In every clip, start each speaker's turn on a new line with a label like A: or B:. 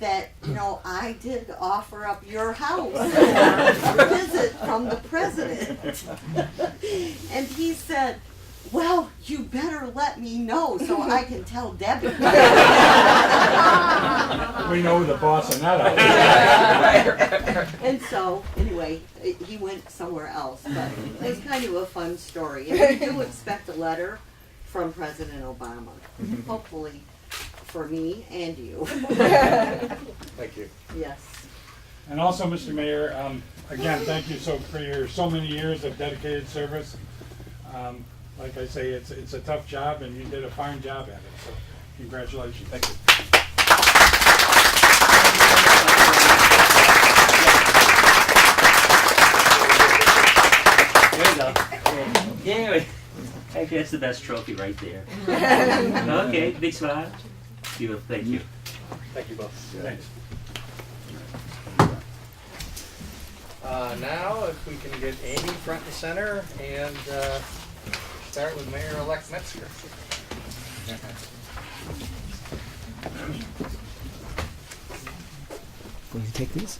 A: that, you know, I did offer up your house for a visit from the president. And he said, well, you better let me know so I can tell Debbie.
B: We know who the boss and that.
A: And so, anyway, it- he went somewhere else, but it was kind of a fun story. And we do expect a letter from President Obama, hopefully for me and you.
C: Thank you.
A: Yes.
B: And also, Mr. Mayor, um, again, thank you so for your so many years of dedicated service. Um, like I say, it's it's a tough job, and you did a fine job at it. So, congratulations. Thank you.
D: There you go. Yeah, I guess the best trophy right there. okay, big smile. You, thank you.
C: Thank you both.
B: Thanks.
C: Uh, now, if we can get Amy front and center and uh, start with Mayor-elect Metzger.
E: Will you take these?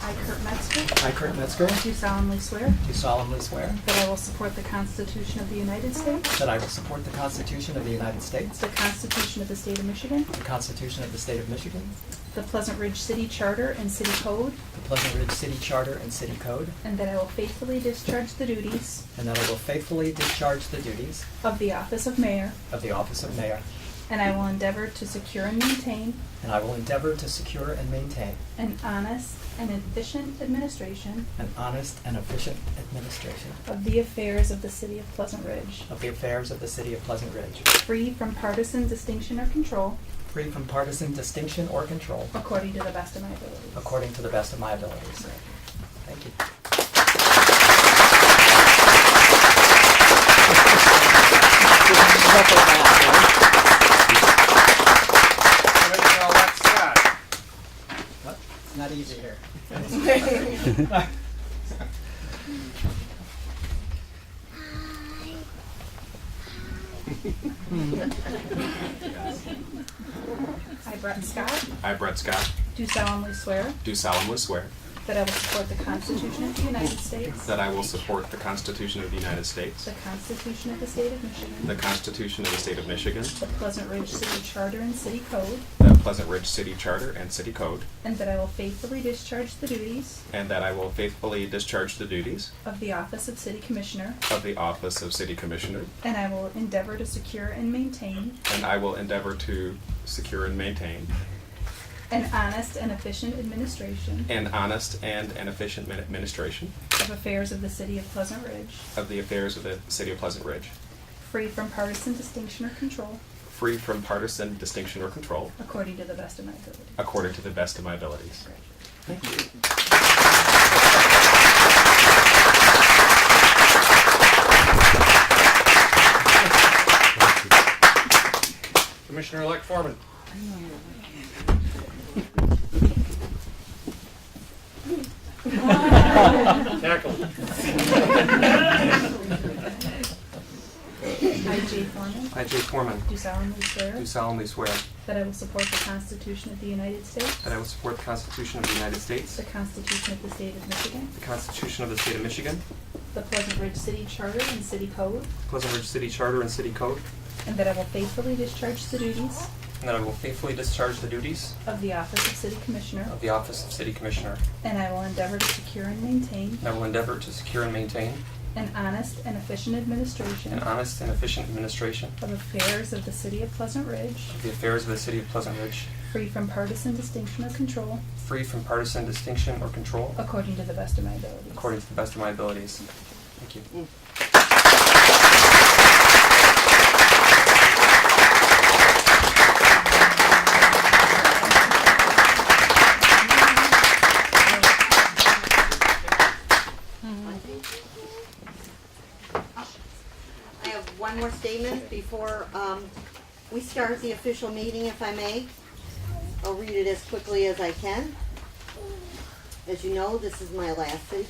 F: I, Kurt Metzger,
E: I, Kurt Metzger,
F: do solemnly swear
E: do solemnly swear
F: that I will support the Constitution of the United States,
E: that I will support the Constitution of the United States,
F: the Constitution of the State of Michigan,
E: the Constitution of the State of Michigan,
F: the Pleasant Ridge City Charter and City Code,
E: the Pleasant Ridge City Charter and City Code,
F: and that I will faithfully discharge the duties
E: and that I will faithfully discharge the duties
F: of the office of mayor,
E: of the office of mayor,
F: and I will endeavor to secure and maintain
E: and I will endeavor to secure and maintain
F: an honest and efficient administration
E: an honest and efficient administration
F: of the affairs of the city of Pleasant Ridge,
E: of the affairs of the city of Pleasant Ridge,
F: free from partisan distinction or control,
E: free from partisan distinction or control,
F: according to the best of my abilities.
E: according to the best of my abilities. Thank you.
C: Commissioner-elect Scott.
E: Well, It's not easy here.
F: I, Brett Scott,
G: I, Brett Scott,
F: do solemnly swear
G: do solemnly swear
F: That I will support the Constitution of the United States,
G: that I will support the Constitution of the United States,
F: the Constitution of the State of
G: the
F: Michigan,
G: Constitution of the State of Michigan,
F: the Pleasant Ridge City Charter and City Code,
G: the Pleasant Ridge City Charter and City Code,
F: and that I will faithfully discharge the duties
G: and that I will faithfully discharge the duties
F: of the Office of City Commissioner,
G: of the Office of City Commissioner,
F: and I will endeavor to secure and maintain
G: and I will endeavor to secure and maintain
F: an honest and efficient administration
G: an honest and an efficient min- administration
F: of affairs of the City of Pleasant Ridge,
G: of the affairs of the City of Pleasant Ridge,
F: free from partisan distinction or control,
G: free from partisan distinction or control,
F: according to the best of my ability.
G: according to the best of my abilities.
C: Commissioner-elect Foreman. Tackle.
F: I, Jay Foreman,
C: I, Jay Foreman,
F: do solemnly swear
C: do solemnly swear
F: that I will support the Constitution of the United States,
C: that I will support the Constitution of the United States,
F: the Constitution of the State of Michigan,
C: the Constitution of the State of Michigan,
F: The Pleasant Ridge City Charter and City Code,
C: Pleasant Ridge City Charter and City Code,
F: and that I will faithfully discharge the duties
C: and that I will faithfully discharge the duties
F: of the Office of City Commissioner,
C: of the Office of City Commissioner,
F: and I will endeavor to secure and maintain
C: and I will endeavor to secure and maintain
F: an honest and efficient administration
C: an honest and efficient administration
F: of affairs of the City of Pleasant Ridge,
C: of the affairs of the City of Pleasant Ridge,
F: free from partisan distinction or control,
C: free from partisan distinction or control,
F: according to the best of my abilities.
C: according to the best of my abilities. Thank you.
A: I have one more statement before um, we start the official meeting, if I may. I'll read it as quickly as I can. As you know, this is my last city